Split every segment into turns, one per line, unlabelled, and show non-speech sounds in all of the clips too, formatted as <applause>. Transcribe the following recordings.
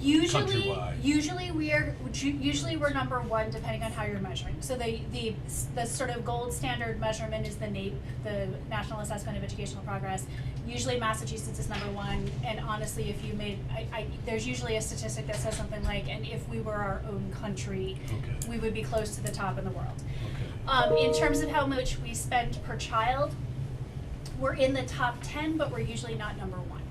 Usually,
Countrywide.
usually we are, usually we're number one depending on how you're measuring. So the, the, the sort of gold standard measurement is the NAEP, the National Assessment of Educational Progress. Usually Massachusetts is number one, and honestly, if you made, I, I, there's usually a statistic that says something like, and if we were our own country,
Okay,
we would be close to the top in the world.
okay.
Um, in terms of how much we spend per child, we're in the top ten, but we're usually not number one.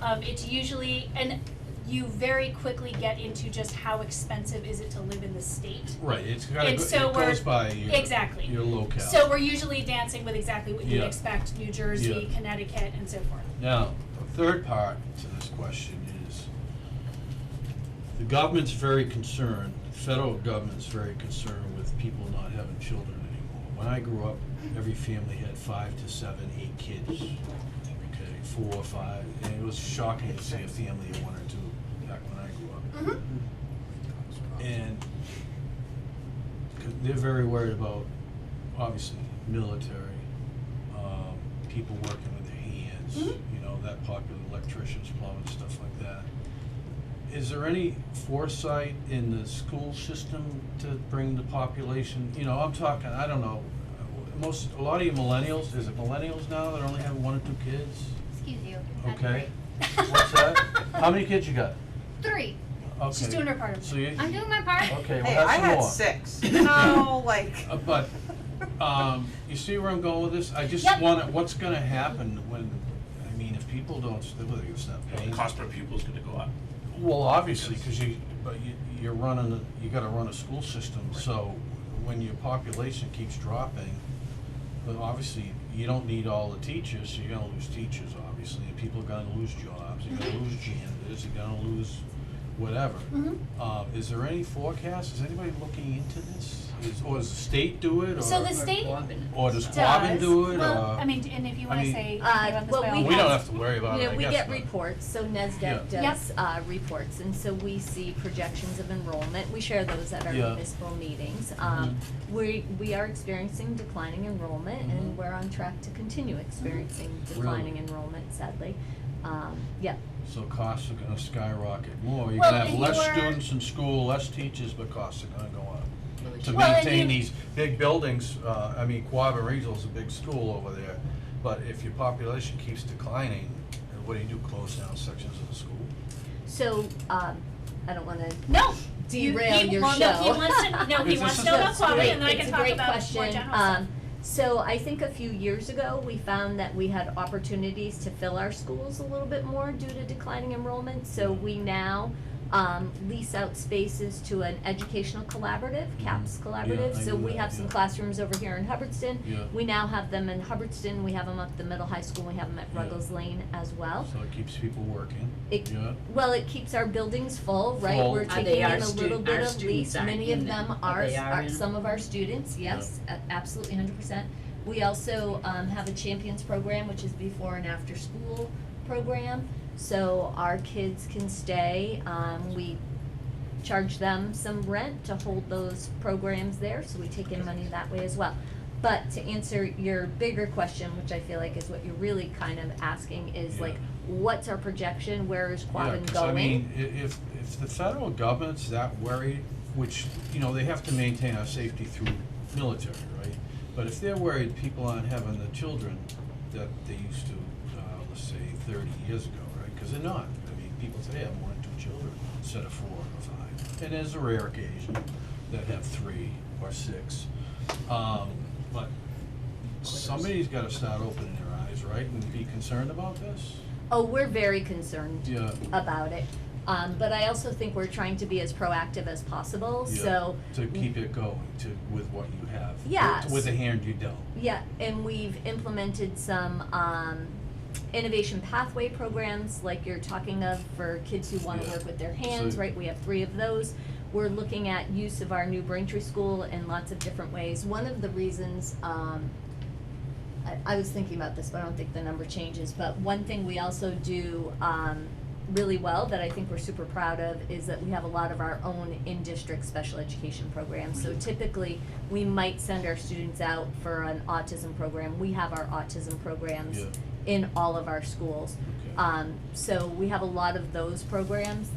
Um, it's usually, and you very quickly get into just how expensive is it to live in the state.
Right, it's kind
And
of,
so
it
we're-
goes by your,
exactly.
your locale.
So we're usually dancing with exactly what you'd
Yeah.
expect, New Jersey,
Yeah.
Connecticut, and so forth.
Now, the third part to this question is, the government's very concerned, the federal government's very concerned with people not having children anymore. When I grew up, every family had five to seven, eight kids, okay, four or five, and it was shocking to see a family of one or two back when I grew up.
Mhm.
Mm-hmm.
And 'cause they're very worried about, obviously, military, um, people working with their hands,
Mhm.
you know, that popular electricians, plumbers, stuff like that. Is there any foresight in the school system to bring the population, you know, I'm talking, I don't know, uh, most, a lot of you millennials, is it millennials now that only have one or two kids?
Excuse you.
Okay. What's
<laughs>
that? How many kids you got?
Three.
She's
Okay.
doing her part of it.
So you,
I'm doing my part.
okay, well,
Hey,
have
I
some
had
more.
six. No, like.
Uh, but, um, you see where I'm going with this? I just
Yep.
wanna, what's gonna happen when, I mean, if people don't, st- whether you stop
The
paying.
cost per pupil is gonna go up.
Well, obviously, cause you, but you, you're running, a- you gotta run a school system, so when your population keeps dropping, then obviously, you don't need all the teachers, so you're gonna lose teachers, obviously, and people are gonna lose jobs, you're gonna lose
Mm-hmm.
janitors, you're gonna lose whatever.
Mhm.
Uh, is there any forecast? Is anybody looking into this? Is, or does the state do it, or?
So the state
Or does Quabbin
does,
do it, or?
well, I mean, and if you
I
wanna
mean-
say, you
Uh,
want this
well,
by all
we
means.
We don't have to worry about
You
it,
know,
I
we
guess,
get
but-
reports, so NESDEC
Yeah.
does, uh, reports, and so we see projections of enrollment, we share those at our
Yeah. Mm-hmm.
municipal meetings. Um, we, we are experiencing declining enrollment,
Mhm.
and we're on track to continue experiencing declining
Mm-hmm. Really?
enrollment sadly. Um, yeah,
So costs are gonna skyrocket more. You're
Well,
gonna have
and
less
you're-
students in school, less teachers, but costs are gonna go up. To
Well, and
maintain
you-
these big buildings, uh, I mean, Quabbin Regional's a big school over there, but if your population keeps declining, then what do you do, close down sections of the school?
so, um, I don't wanna
No. You-
derail
he-
your
well, no, he
show.
wants to- no, he
This
wants to
is
know
a-
about Quabbin, and then I
It's
can
a
talk
great
about more
question.
general stuff.
Um, so I think a few years ago, we found that we had opportunities to fill our schools a little bit more due to declining enrollment. So we now um, lease out spaces to an educational collaborative, CAPS collaborative.
Mm-hmm. I
So
knew
we
that,
have some
yeah.
classrooms over here in Hubbardston.
Yeah.
We now have them in Hubbardston, we have them up the middle high school, we have them at
Yeah.
Ruggles Lane as well.
So it keeps people working,
It-
yeah?
Well, it keeps our buildings full, right?
Full.
We're
Are
taking
they
in
our
a
stu-
little
our
bit of
students
lease.
aren't
Many
in
of
them,
them
but
are,
they are
are
in
some of our students, yes, a- absolutely, hundred percent. We also um, have a champions program, which is before and after school program, so our kids can stay. Um, we charge them some rent to hold those programs there, so we take in money that way as well. But to answer your bigger question, which I feel like is what you're really kind of asking, is
Yeah.
like, what's our projection? Where is
Yeah,
Quabbin
'cause I mean,
going?
i- if, if the federal government's that worried, which, you know, they have to maintain our safety through military, right? But if they're worried people aren't having the children that they used to, uh, let's say thirty years ago, right? Cause they're not, I mean, people today have one or two children instead of four or five. And there's a rare occasion that have three or six. Um, but somebody's gotta start opening their eyes, right, and be concerned about this?
Oh, we're very concerned
Yeah.
about it. Um, but I also think we're trying to be as proactive as possible,
Yeah,
so.
To keep it going, to, with what you have. with-
Yes.
With the hand you dealt.
Yeah, and we've implemented some um, innovation pathway programs like you're talking of for kids who want to
Yeah.
work with their hands,
So-
right? We have three of those. We're looking at use of our new Braintree School in lots of different ways. One of the reasons um, I, I was thinking about this, but I don't think the number changes. But one thing we also do um, really well that I think we're super proud of is that we have a lot of our own in district special education programs. So typically, we might send our students out for an autism program. We have our autism programs
Yeah.
in all of our schools.
Okay.
Um, so we have a lot of those programs